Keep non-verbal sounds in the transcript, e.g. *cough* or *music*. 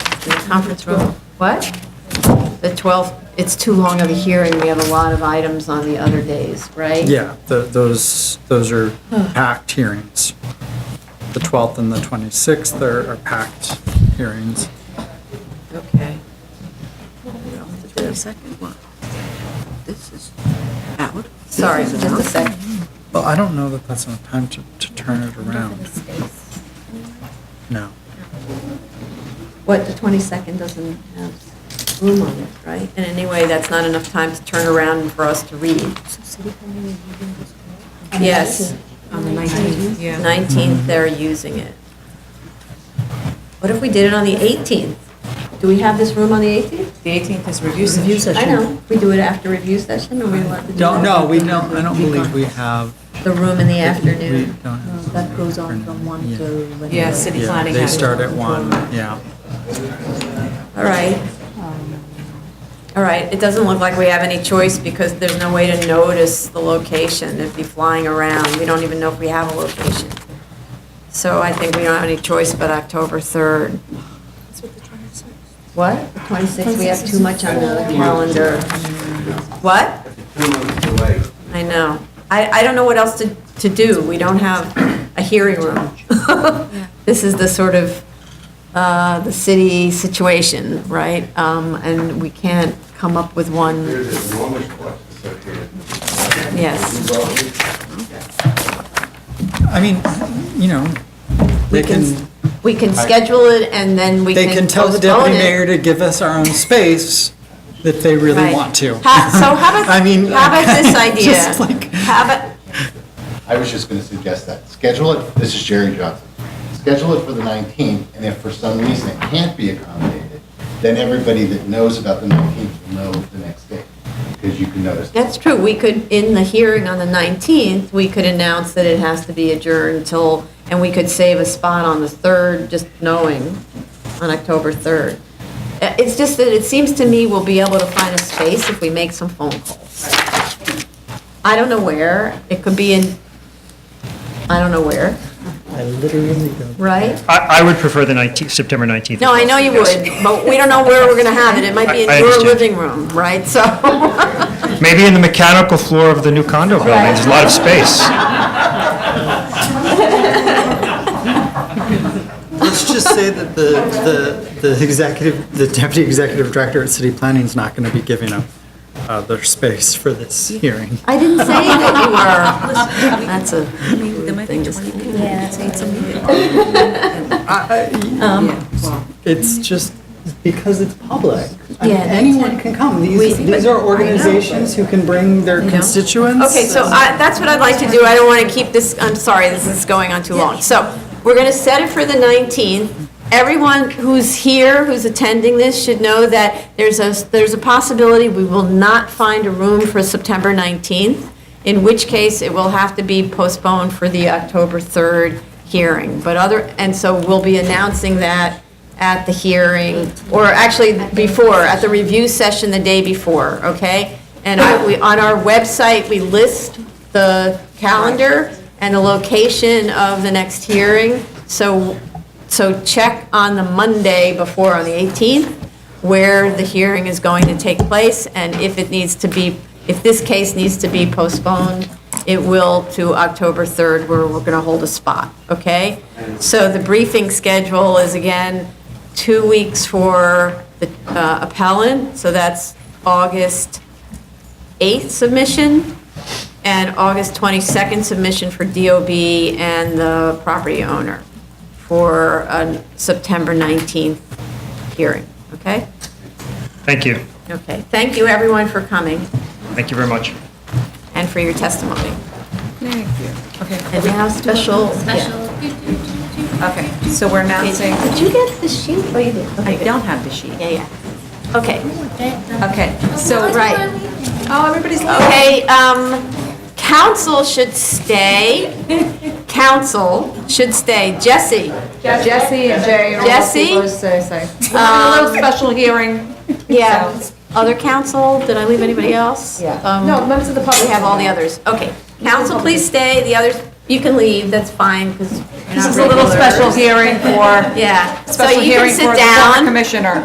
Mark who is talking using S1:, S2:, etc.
S1: the conference room, what? The 12th, it's too long of a hearing, we have a lot of items on the other days, right?
S2: Yeah, tho- those, those are packed hearings. The 12th and the 26th are are packed hearings.
S1: Okay.
S3: The 22nd one. This is out.
S1: Sorry, just a sec.
S2: Well, I don't know that that's enough time to, to turn it around. No.
S1: What, the 22nd doesn't have room on it, right? And anyway, that's not enough time to turn around for us to read. Yes.
S4: On the 19th, yeah.
S1: 19th, they're using it. What if we did it on the 18th? Do we have this room on the 18th?
S4: The 18th is review session.
S1: I know, we do it after review session, or we allowed to do
S2: Don't,
S1: that?
S2: no, we don't, I don't believe we have.
S1: The room in the
S2: we
S1: afternoon.
S2: don't have something
S3: That goes on
S2: for-
S3: from 1
S2: yeah.
S3: to whenever.
S4: Yeah, city
S2: Yeah,
S4: planning.
S2: they
S4: has-
S2: start at 1, yeah.
S1: All right. All right, it doesn't look like we have any choice because there's no way to notice the location. It'd be flying around. We don't even know if we have a location. So I think we don't have any choice but October 3rd. What? The 26th, we have too much on the calendar. What? I know. I, I don't know what else to, to do. We don't have a hearing room. *laughs* This is the sort of, uh, the city situation, right? Um, and we can't come up with one,
S5: There's enormous costs associated.
S1: yes.
S2: I mean, you know, they
S1: We can-
S2: can,
S1: We can schedule it and then we can
S2: they can tell the
S1: postpone
S2: deputy
S1: it.
S2: mayor to give us our own space if they really
S1: Right.
S2: want to.
S1: Ha- So how about,
S2: *laughs* I mean,
S1: how about this
S2: just
S1: idea?
S2: like-
S1: How about,
S5: I was just going to suggest that. Schedule it, this is Jerry Johnson. Schedule it for the 19th, and if for some reason it can't be accommodated, then everybody that knows about the 19th will know the next day, because you can notice.
S1: that's true, we could, in the hearing on the 19th, we could announce that it has to be adjourned till, and we could save a spot on the 3rd, just knowing, on October 3rd. Uh, It's just that it seems to me we'll be able to find a space if we make some phone calls. I don't know where, it could be in, I don't know where,
S2: I literally don't.
S1: right?
S6: I, I would prefer the 19th, September 19th.
S1: No, I know you would, but we don't know where we're going to have it. It might be in
S6: I- I
S1: your
S6: understand.
S1: living room, right? So, *laughs*
S6: Maybe in the mechanical floor of the new condo building, there's a lot of space.
S2: Let's just say that the, the, the executive, the deputy executive director at city planning is not going to be giving up uh, their space for this hearing.
S1: I didn't say that you were. That's a
S3: There might be 20 people. Yeah.
S2: It's just because it's public. I mean,
S1: Yeah, that's
S2: Anyone can come. These,
S1: We-
S2: these are organizations who can bring their constituents.
S1: Okay, so I, that's what I'd like to do. I don't want to keep this, I'm sorry, this is going on too long. So we're going to set it for the 19th. Everyone who's here, who's attending this, should know that there's a, there's a possibility we will not find a room for September 19th, in which case it will have to be postponed for the October 3rd hearing. But other, and so we'll be announcing that at the hearing, or actually before, at the review session the day before, okay? And I, we, on our website, we list the calendar and the location of the next hearing. So, so check on the Monday before, on the 18th, where the hearing is going to take place, and if it needs to be, if this case needs to be postponed, it will to October 3rd, where we're going to hold a spot, okay? So the briefing schedule is, again, two weeks for the uh, appellant, so that's August 8th submission and August 22nd submission for DOB and the property owner for a September 19th hearing, okay?
S6: Thank you.
S1: Okay, thank you everyone for coming
S6: Thank you very much.
S1: and for your testimony. Thank you. And now special, yeah.
S4: Okay, so we're announcing,
S1: Did you get the sheet? Oh, you did.
S4: I
S1: Okay, good.
S4: don't have the sheet.
S1: Yeah, yeah. Okay.
S4: Okay, so,
S1: Right. Oh, everybody's Okay, um, council should
S4: *laughs*
S1: stay. Council should stay. Jesse?
S4: Jesse and Jerry. are-
S1: Jesse? um,
S4: We're having a little special hearing.
S1: Yeah. Other council? Did I leave anybody else? Um, Yeah. No, members of the public. We have all the others. Okay. Council, please stay. The others, you can leave. That's fine because
S4: This is a little special hearing for,
S1: Yeah. So you
S4: special
S1: can
S4: hearing
S1: sit
S4: for the former
S1: down.
S4: commissioner.